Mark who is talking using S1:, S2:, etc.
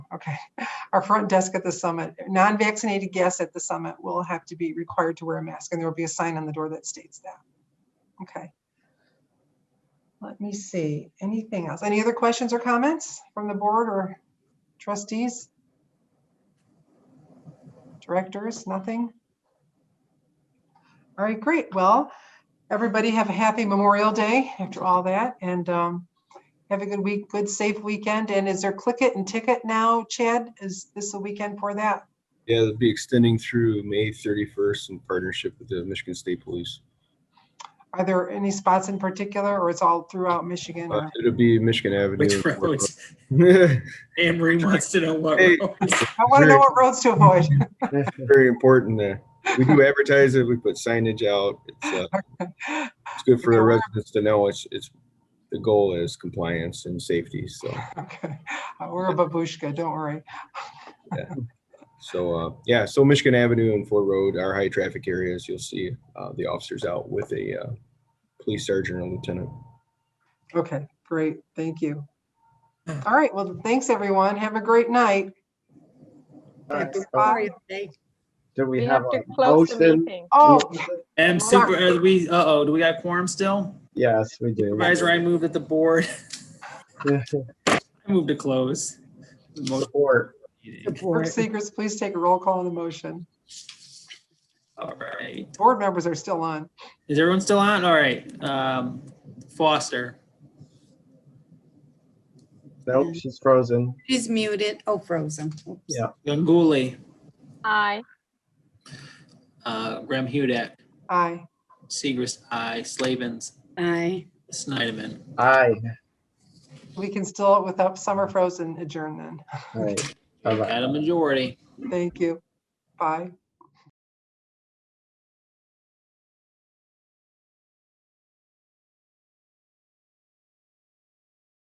S1: Okay. Our front desk at the summit, non-vaccinated guests at the summit will have to be required to wear a mask, and there will be a sign on the door that states that. Okay. Let me see, anything else? Any other questions or comments from the board or trustees? Directors, nothing? All right, great. Well, everybody have a happy Memorial Day after all that, and um, have a good week, good safe weekend. And is there click it and ticket now, Chad? Is this the weekend for that?
S2: Yeah, it'll be extending through May 31st in partnership with the Michigan State Police.
S1: Are there any spots in particular or it's all throughout Michigan?
S2: Uh,
S1: or-
S2: It'll be Michigan Avenue.
S3: Which
S2: and Fort
S3: roads?
S2: Road.
S3: Anne Marie wants to know what
S2: Hey.
S3: roads.
S1: I want to know what roads to avoid.
S2: Very important there. We do advertise it, we put signage out. It's, uh, it's good for the residents to know it's, it's, the goal is compliance and safety, so.
S1: Okay, Uh, We're a babushka, don't worry.
S2: So, uh, yeah, so Michigan Avenue and Ford Road are high traffic areas. You'll see, uh, the officers out with a, uh, police sergeant or lieutenant.
S1: Okay, great, thank you. All right, well, thanks, everyone. Have a great night.
S4: Alright, so
S1: Bye.
S4: Do we
S5: We
S4: have
S5: have to
S4: a
S5: close the
S4: motion?
S5: meeting.
S1: Oh,
S3: M super, uh, we, uh-oh, do we got quorum still?
S4: Yes, we do.
S3: Supervisor, I moved at the board.
S4: Yeah.
S3: I moved to close. Motion
S4: Support.
S3: meeting.
S1: board seekers, please take a roll call on the motion.
S3: All right.
S1: Board members are still on.
S3: Is everyone still on? All right. Um, Foster,
S4: Nope, she's frozen.
S6: She's muted. Oh, frozen. Oops.
S4: Yeah.
S3: Ganguly,
S5: Aye.
S3: uh, Graham Hudek,
S1: Aye.
S3: Segrist, I, Slavens,
S6: Aye.
S3: Snyderman.
S4: Aye.
S1: We can still, without summer frozen, adjourn then.
S4: All right. Bye-bye.
S3: Got a majority.
S1: Thank you. Bye.